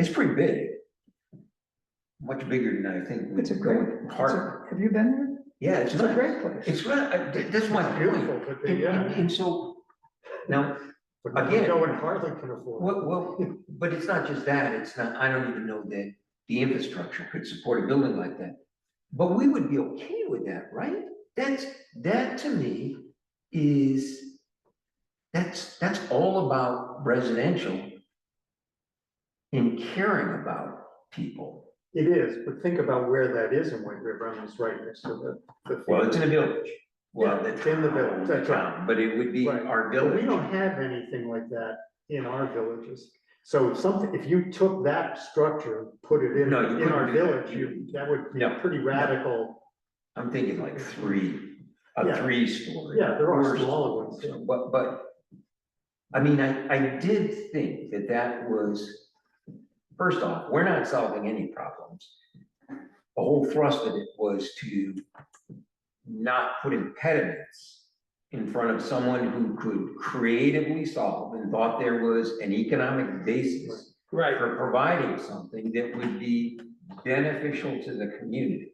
It's pretty big. Much bigger than I think. we- It's a great. it's a- Hard, Have you been there? yeah, it's It's a not, great place. it's not, I- th- that's my feeling. Beautiful, could be, And, and yeah. and so, now, But no- Again. No one hardly can afford. well, well, but it's not just that, it's not, I don't even know that the infrastructure could support a building like that. But we would be okay with that, right? That's, that to me is, that's, that's all about residential and caring about people. It is, but think about where that is in White River, I mean, it's right next to the. the Well, it's in field. the village. Well, Yeah, the it's in the village, that's right. town, But it would be Right. our But We village. don't have anything like that in our villages. So if something, if you took that structure, and put it in, No, you in couldn't our do that. village, you, that would be a No. pretty radical. I'm thinking like three, a Yeah. three story. Yeah, there are Or- smaller ones, yeah. But, but, I mean, I, I did think that that was, first off, we're not solving any problems. The whole thrust of it was to not put impediments in front of someone who could creatively solve and thought there was an economic basis Right, for providing something that would be beneficial to the community.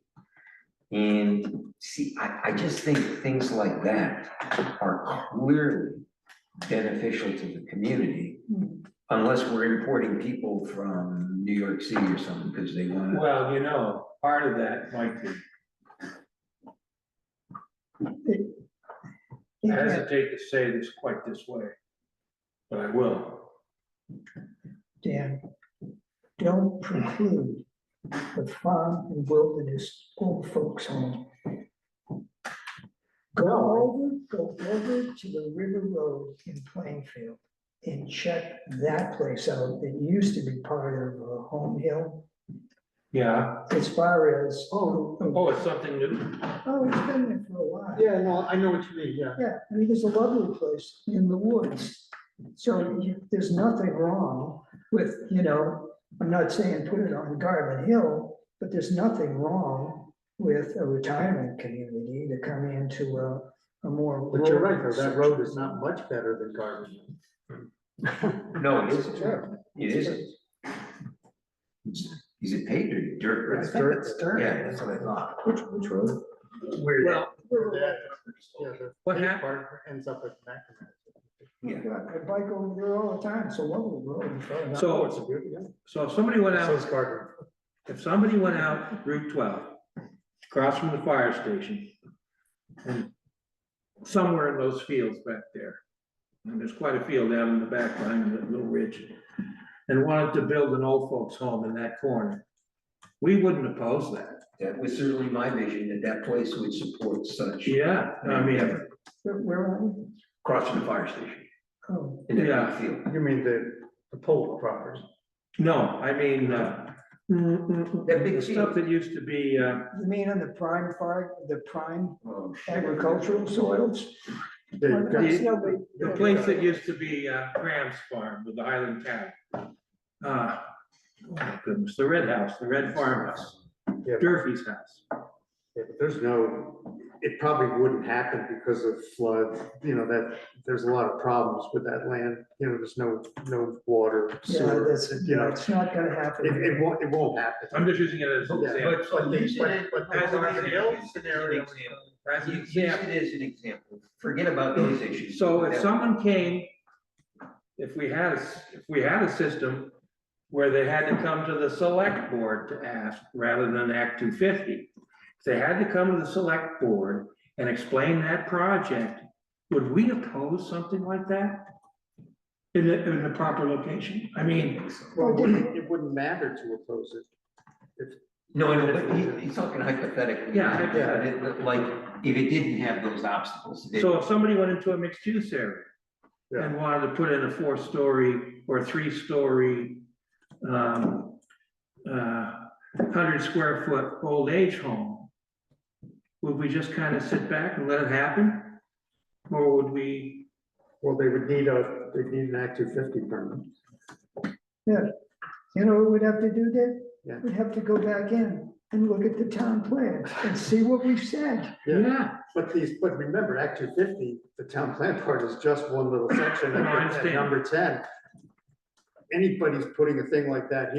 And see, I, I just think things like that are clearly beneficial to the community. Hmm. Unless we're importing people from New York City or something, because they wanna, well, you know, part of that might be, I Yeah, hesitate to say this quite this way. But I will, Dan, don't preclude the farm and wilderness old folks home. Go over, go over to the River Road in Plainfield and check that place out. It used to be part of uh, Home Hill yeah, as far as. Oh, oh, it's something new, Oh, it's been there for a while. Yeah, no, I know what you mean, yeah. Yeah, I mean, there's a lovely place in the woods. So you- there's nothing wrong with, you know, I'm not saying put it on Garland Hill, but there's nothing wrong with a retirement community to come into a, a more. But you're right, rural though, that road is not much better than Garden. no, it isn't, Sure. it isn't. It's- Is it paved or dirt? right? It's dirt. It's dirt. Yeah, that's what I thought. Which, which road? Where well, that- yeah, the what big hap- part Ends up at Mackinac. Oh, Yeah. God, I bike over there all the time, so lovely road. So- Oh, it's a good, yeah. so if somebody went So is out, Garden. if somebody went out Route twelve, across from the fire station. and Somewhere in those fields back there, and there's quite a field out in the back behind that little ridge. And wanted to build an old folks home in that corner, we wouldn't oppose that. That was certainly my vision, that that place would support such. Yeah, I mean, Where- Where are we? Crossing the fire station Oh, in that Yeah. field. You mean the, the pole property? no, I mean, uh, That big the stuff that used to be, uh, you mean on the prime farm, the prime Oh, shit. agricultural soils? The- Well, that's no big- the place that used to be, uh, Graham's Farm with the Highland Cow. Uh, oh my goodness, the Red House, the Red Farmhouse, Yeah. Durfee's house. Yeah, but There's no, it probably wouldn't happen because of flood, you know, that, there's a lot of problems with that land, you know, there's no, no water, Yeah, sewer. that's, you know, it's not gonna It, happen. it won't, it won't happen. I'm just using it as an Yeah, example. but- but the- using but- it but the as an Garden example, Hill scenario- as an example. As an Use it example. as an example. Forget about those issues. So if That- someone came, if we had, a s- if we had a system where they had to come to the select board to ask rather than Act two fifty. If they had to come to the select board and explain that project, would we oppose something like that? In the, in the proper location? I mean, Well, it wouldn't, it wouldn't matter to oppose it. No, no, but he, he's talking hypothetically. Yeah, Yeah, hypothetical. like, if it didn't have those obstacles. that- so if somebody went into a mixed use area and wanted to put in a four-story or three-story, um, uh, hundred square foot old age home, would we just kind of sit back and let it happen? Or would we, Well, they would need a, they'd need an Act two fifty permit. You know, what we'd have to do that? Yeah. We'd have to go back in and look at the town plan and see what we said. Yeah, yeah, but these, but remember, Act two fifty, the town plan part is just one little section, No, I at understand. number ten. Anybody's putting a thing like that here.